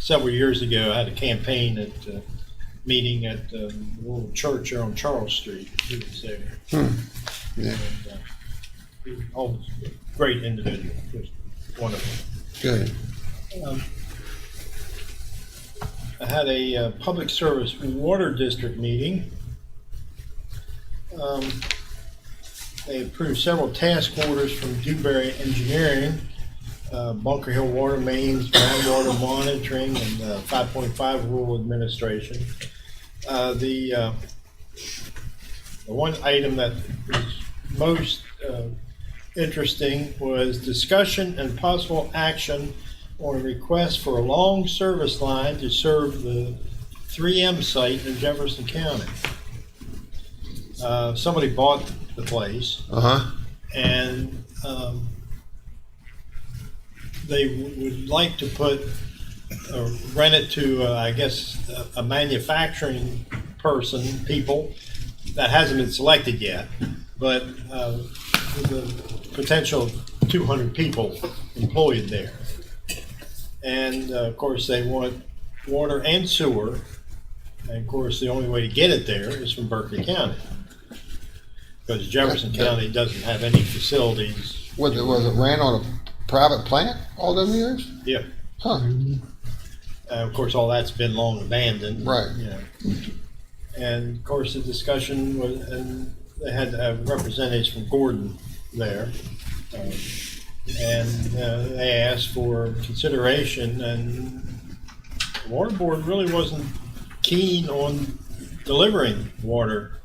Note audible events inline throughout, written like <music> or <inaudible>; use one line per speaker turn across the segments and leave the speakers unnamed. several years ago, I had a campaign at a meeting at um, a little church here on Charles Street. He was there.
Yeah,
And, uh, he was always a great individual, just wonderful.
good.
Um, I had a uh, public service water district meeting. Um, They approved several task orders from Dewberry Engineering, uh, Bunker Hill Water Mains, groundwater monitoring, and uh, 5.5 rule administration. Uh, The, uh, the one item that was most uh, interesting was discussion and possible action on a request for a long service line to serve the 3M site in Jefferson County. Uh, Somebody bought the place
Uh-huh.
and um, they w- would like to put, uh, rent it to, uh, I guess, a- a manufacturing person, people, that hasn't been selected yet, but uh, with the potential 200 people employed there. And uh, of course, they want water and sewer, and of course, the only way to get it there is from Berkeley County. Because Jefferson County doesn't have any facilities.
Was it, was it ran on a private plant all them years?
Yeah,
Huh,
Uh, of course, all that's been long abandoned.
Right.
You know. And of course, the discussion was, and they had uh, representatives from Gordon there. um, And uh, they asked for consideration and the water board really wasn't keen on delivering water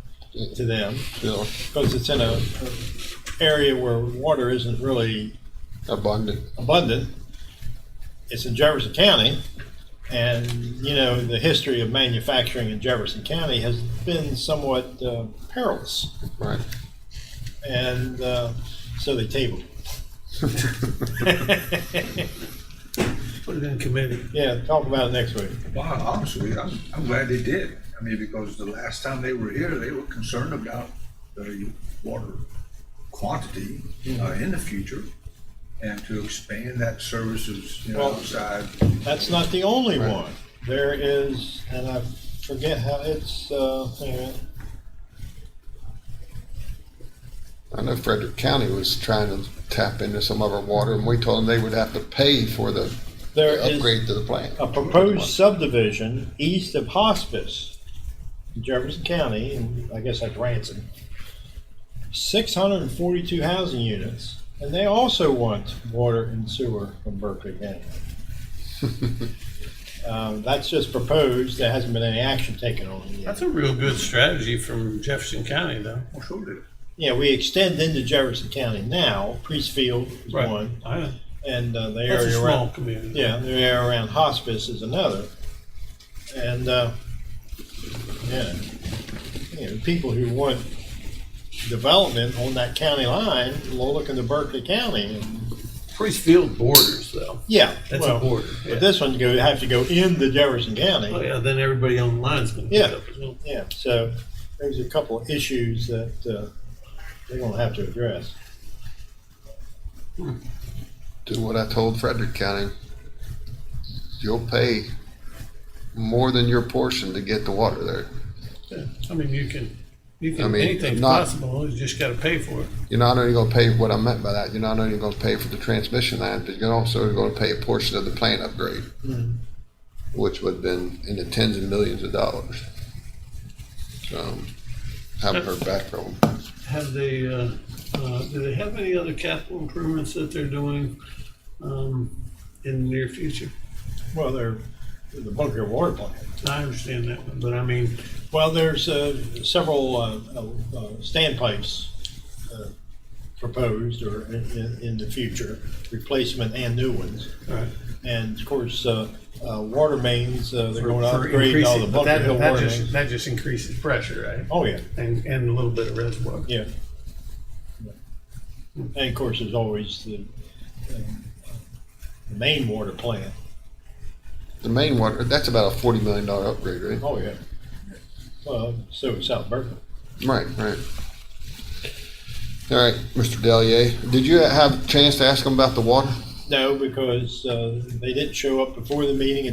to them
still
because it's in a, a area where water isn't really
abundant.
abundant. It's in Jefferson County, and you know the history of manufacturing in Jefferson County has been somewhat uh, perilous,
Right. <laughs>
and uh, so they tabled. <laughs> it.
Put it in committee.
yeah, talk about it next week.
Wow, honestly, I'm, I'm glad they did. I mean, because the last time they were here, they were concerned about the water quantity uh, in the future and to expand that services, you know,
Well-
outside.
That's not the only one. There is, and I forget how it's. Uh, hang on.
I know Frederick County was trying to tap into some of our water and we told them they would have to pay for the
there is-
upgrade to the plant.
a proposed subdivision east of Hospice, in Jefferson County, and I guess that's Ransom. Six hundred and forty-two housing units, and they also want water and sewer from Berkeley County. Um, that's just proposed, there hasn't been any action taken on it yet.
That's a real good strategy from Jefferson County, though.
Well, sure did.
Yeah, we extend into Jefferson County now, Priestfield is one,
I know.
and uh, the
That's a
area around
small community.
Yeah, the area around hospice is another. And, uh, yeah, you know, people who want development on that county line will look into Berkeley County. and-
Priestfield borders, though.
Yeah.
That's
well,
a border. Yeah.
But this one go, have to go into Jefferson
oh,
County.
yeah, then everybody online's going to
Yeah.
pick up as well.
Yeah, so there's a couple of issues that, uh, they're gonna have to address.
Do what I told Frederick County. You'll pay more than your portion to get the water there.
Yeah. I mean, you can, you can
I mean,
anything's
not-
possible. You just got to pay for it.
You're not only gonna pay, what I meant by that, you're not only gonna pay for the transmission line, but you're also gonna pay a portion of the plant upgrade. Which would have been in the tens of millions of dollars. Um, haven't heard back from them.
Have they, uh, uh, do they have any other capital improvements that they're doing um, in the near future?
Well, they're, the Bunker Water Plant.
I understand that one, but I mean,
Well, there's uh, several uh, uh, uh, standpipes uh, proposed or in- in in the future, replacement and new ones.
all right.
And of course, uh, uh, water mains, uh, they're
For-
going to
for
upgrade all the
increasing- but
Bunker
that-
Hill
that
water
just-
mains.
That just increases pressure, right?
Oh, yeah,
And, and a little bit of reservoir.
yeah. And of course, there's always the um, the main water plant.
The main water, that's about a forty million dollar upgrade, right?
Oh, yeah. Well, so is South Berkeley.
Right, right. All right, Mr. Delier, did you have a chance to ask them about the water?
No, because uh, they didn't show up before the meeting